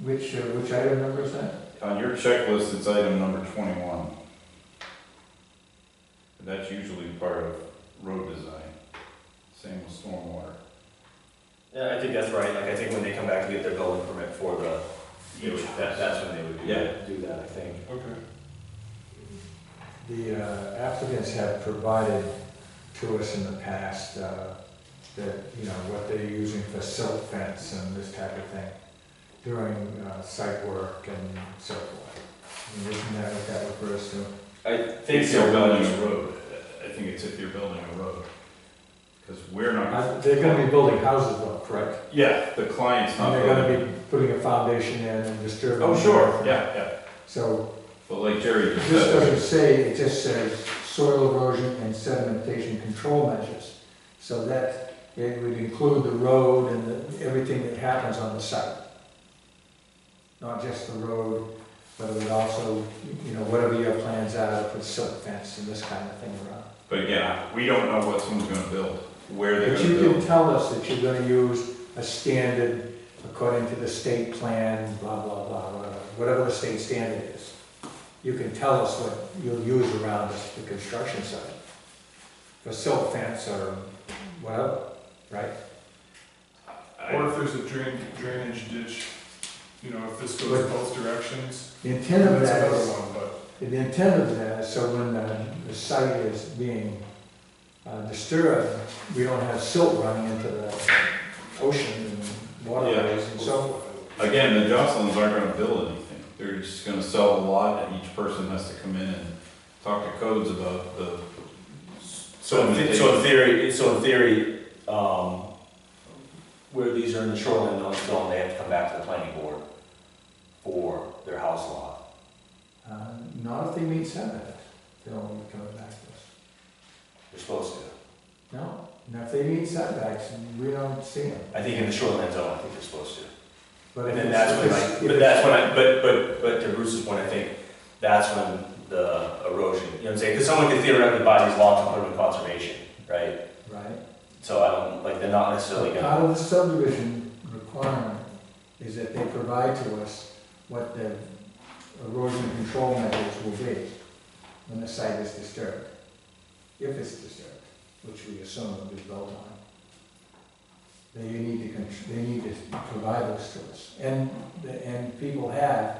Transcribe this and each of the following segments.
Which, uh, which item number is that? On your checklist, it's item number twenty-one. That's usually part of road design, same with stormwater. Yeah, I think that's right, like, I think when they come back to get their building permit for the, they would- that, that's when they would do that, do that, I think. Okay. The uh, applicants have provided to us in the past uh, that, you know, what they're using for silt fence and this type of thing during uh, site work and so forth. And Isn't that what that refers to? I think If you're so, building but, a road, I think it's if you're building a road. Because we're not, Uh, They're gonna be building houses though, correct? yeah, the client's And not they're gonna building. be putting a foundation in and disturbing. Oh, sure, yeah, yeah. So But like Jerry just This said, doesn't say, it just says soil erosion and sedimentation control measures. So that, it would include the road and the- everything that happens on the site. Not just the road, but it would also, you know, whatever your plans are, put silk fence and this kind of thing around. but again, we don't know what someone's gonna build, where they're But gonna you can build. tell us that you're gonna use a standard according to the state plan, blah, blah, blah, whatever, whatever the state standard is. You can tell us what you'll use around this- the construction site. For silt fence or whatever, right? I- Or if there's a drain, drainage ditch, you know, if this goes Right. both directions, The intent of that's that another is, one, but. the intent of that is so when the, the site is being uh, disturbed, we don't have silt running into the ocean and waterways and so forth. Again, the Jocelyn's aren't gonna build anything, they're just gonna sell a lot, and each person has to come in and talk to codes about the. so in, the- so in theory, so in theory, um, where these are in the shoreline zone, they have to come back to the planning board for their house lot. Uh, Not if they meet setbacks, they'll only come back to us. You're supposed to. No, and if they meet setbacks, we don't see them. I think in the shoreline zone, I think you're supposed to. But And if then it's- that's when, if like, it's- but that's when I, but, but, but to Bruce's point, I think that's when the erosion, you know what I'm saying? Because someone could theoretically buy these lots and put them in conservation, right? Right. So I don't, like, they're not necessarily But gonna, Part of the subdivision requirement is that they provide to us what the erosion control measures will be when the site is disturbed. If it's disturbed, which we assume will be built on. They need to, con- they need to provide those to us. And, the- and people have.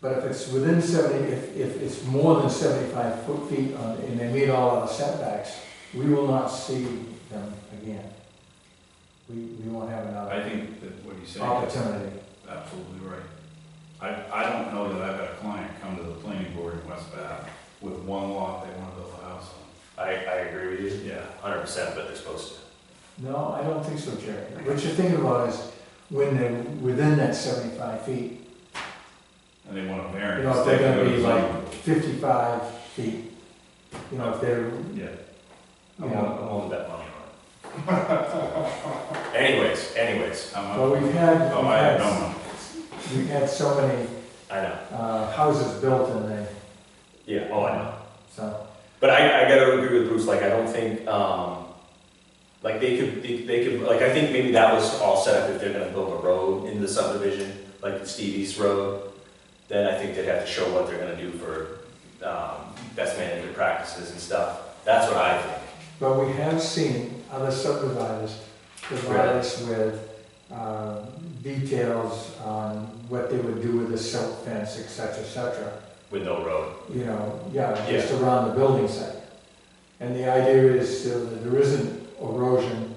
But if it's within seventy, if, if it's more than seventy-five foot feet on- and they meet all our setbacks, we will not see them again. We, we won't have I another think that what he's saying is opportunity. absolutely right. I, I don't know that I've had a client come to the planning board in West Bath with one lot they wanna build a house I, I agree with on. you Yeah. hundred percent, but they're supposed to. No, I don't think so, Jerry. What you're thinking about is when they're within that seventy-five feet, And they want a you variance. know, if they they're can gonna go be to like zoning. fifty-five feet, you know, if they're, you Yeah, I'm willing, know. I'm willing to bet money on it. Anyways, anyways, I'm Well, up. we've had, Oh, we've I have had, no money. we've had so many, I know, uh, houses built in there, yeah, oh, I know. so. But I, I gotta agree with Bruce, like, I don't think, um, like, they could, they, they could, like, I think maybe that was all set up if they're gonna build a road in the subdivision, like Stevie's Road, then I think they'd have to show what they're gonna do for, um, best management practices and stuff. That's what I think. But we have seen other subdividers provide us with, uh, details on what they would do with the silk fence, et cetera, et cetera. With no road. you know, yeah, just around the building site. And the idea is so that there isn't erosion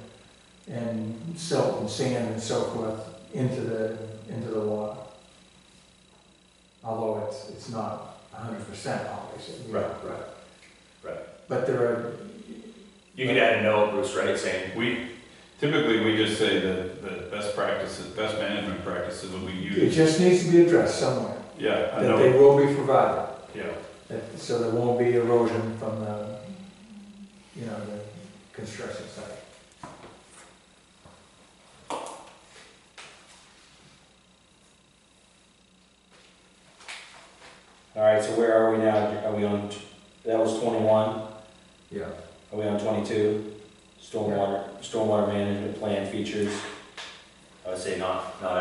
and silt and sand and so forth into the, into the water. Although it's, it's not hundred percent obviously. you know. right. But there are, You could add a note, Bruce, right, saying, We, typically, we just say that, the best practices, best management practices will be it used. just needs to be addressed somewhere, Yeah, I that they know, will be provided, yeah. that- so there won't be erosion from the, you know, the construction site. all right, so where are we now? Are we on, that was twenty-one, Yeah. are we on twenty-two? Stormwater- stormwater management plan features? I would say not, not